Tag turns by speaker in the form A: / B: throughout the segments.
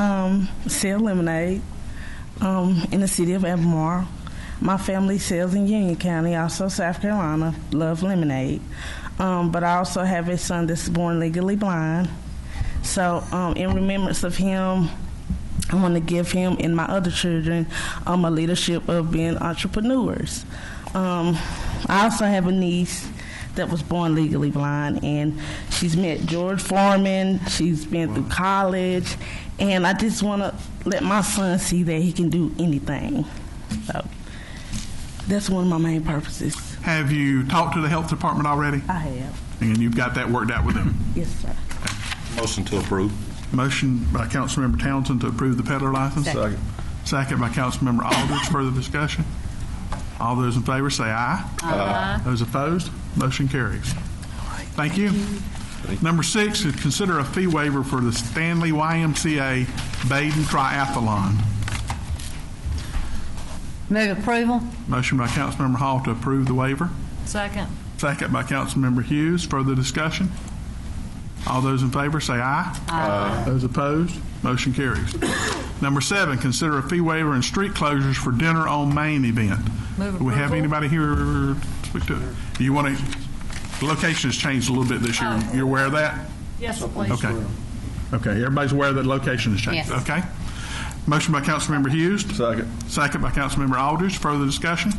A: um, sell lemonade um, in the city of Albemarle. My family sells in Union County, also South Carolina. Love lemonade, um, but I also have a son that's born legally blind. So, um, in remembrance of him, I want to give him and my other children um, a leadership of being entrepreneurs. Um, I also have a niece that was born legally blind, and she's met George Foreman. She's been through college, and I just want to let my son see that he can do anything. So that's one of my main purposes.
B: Have you talked to the health department already?
A: I have.
B: And you've got that worked out with them?
A: Yes, sir.
C: Motion to approve.
B: Motion by Councilmember Townsend to approve the peddler license.
C: Second.
B: Second by Councilmember Aldridge. Further discussion? All those in favor say aye. Aye. Those opposed, motion carries. Thank you. Number six is consider a fee waiver for the Stanley YMCA Baden Triathlon.
D: Move approval.
B: Motion by Councilmember Hall to approve the waiver.
D: Second.
B: Second by Councilmember Hughes. Further discussion? All those in favor say aye. Aye. Those opposed, motion carries. Number seven, consider a fee waiver and street closures for dinner on main event.
D: Move
B: Do we have
D: approval.
B: anybody here to speak to? Do you want to, location has changed a little bit this year. You're aware of that?
D: Uh, Yes, please.
B: Okay. Okay, everybody's aware that location has changed.
D: Yes.
B: Okay. Motion by Councilmember Hughes. Second. Second by Councilmember Aldridge. Further discussion?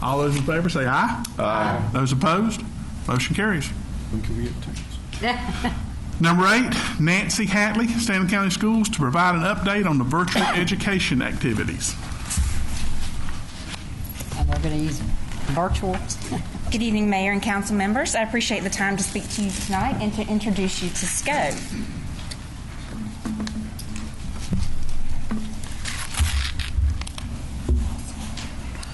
B: All those in favor say aye. Aye. Those opposed? Motion carries. Number eight, Nancy Hatley, Stanley County Schools, to provide an update on the virtual education activities.
D: And we're going to use virtual.
E: Good evening, Mayor and council members. I appreciate the time to speak to you tonight and to introduce you to SCO.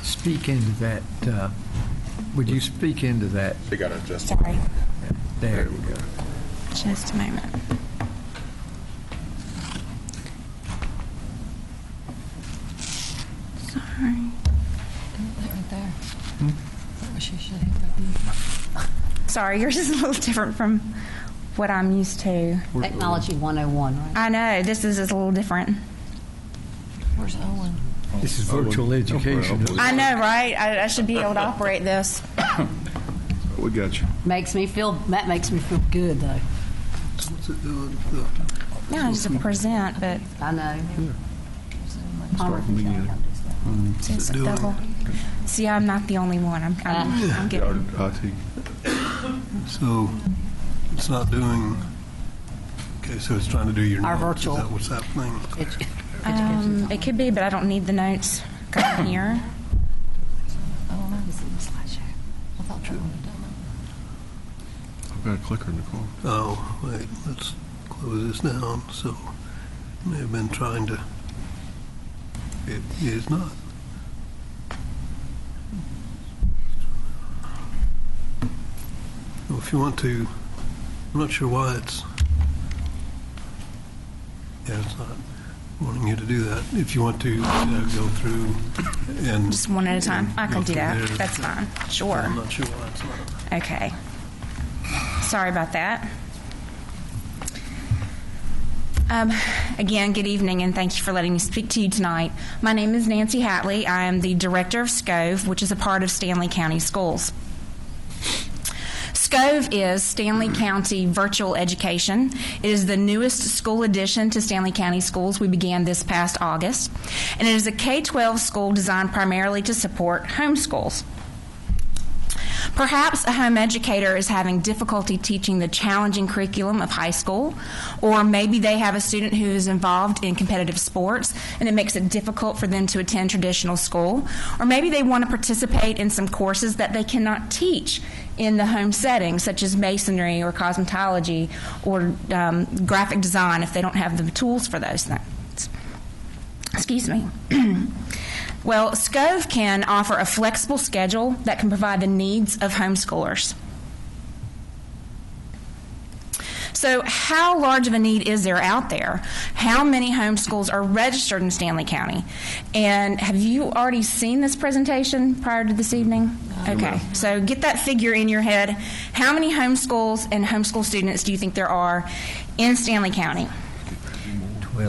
F: Speak into that, uh, would you speak into that?
C: They got to adjust.
E: Sorry,
F: There we go.
E: just a moment. Sorry.
D: Right there. She should have that.
E: Sorry, yours is a little different from what I'm used to.
D: Technology 101, right?
E: I know, this is is a little different.
D: Where's Owen?
F: This is virtual education.
E: I know, right? I, I should be able to operate this.
C: We got you.
G: Makes me feel, that makes me feel good, though.
E: Yeah, I used to present, but
G: I know.
E: it's double. See, I'm not the only one. I'm, I'm, I'm getting.
C: uh,
H: So it's not doing, okay, so it's trying to do your
G: Our
H: notes.
G: virtual.
H: Is that what's happening?
G: Edu-
E: Um, it could be, but I don't need the notes going here.
D: Oh, that was in the slideshow. I thought Trevor had done
C: I've got a clicker in the corner.
H: Oh, wait, let's close this down, so may have been trying to, it is not. Well, If you want to, I'm not sure why it's, yeah, it's not wanting you to do that. If you want to, you know, go through and.
E: Just one at a time. I can
H: Go
E: do
H: through
E: that.
H: there.
E: That's fine. Sure.
H: I'm not sure why it's not.
E: Okay. Sorry about that. Um, again, good evening, and thank you for letting me speak to you tonight. My name is Nancy Hatley. I am the director of SCOVE, which is a part of Stanley County Schools. SCOVE is Stanley County Virtual Education. It is the newest school addition to Stanley County Schools. We began this past August. And it is a K 12 school designed primarily to support homeschools. Perhaps a home educator is having difficulty teaching the challenging curriculum of high school, or maybe they have a student who is involved in competitive sports and it makes it difficult for them to attend traditional school, or maybe they want to participate in some courses that they cannot teach in the home setting, such as masonry or cosmetology or um, graphic design if they don't have the tools for those things. Excuse me. well, SCOVE can offer a flexible schedule that can provide the needs of homeschoolers. So, how large of a need is there out there? How many homeschools are registered in Stanley County? And have you already seen this presentation prior to this evening? Okay, so get that figure in your head. How many homeschools and homeschool students do you think there are in Stanley County?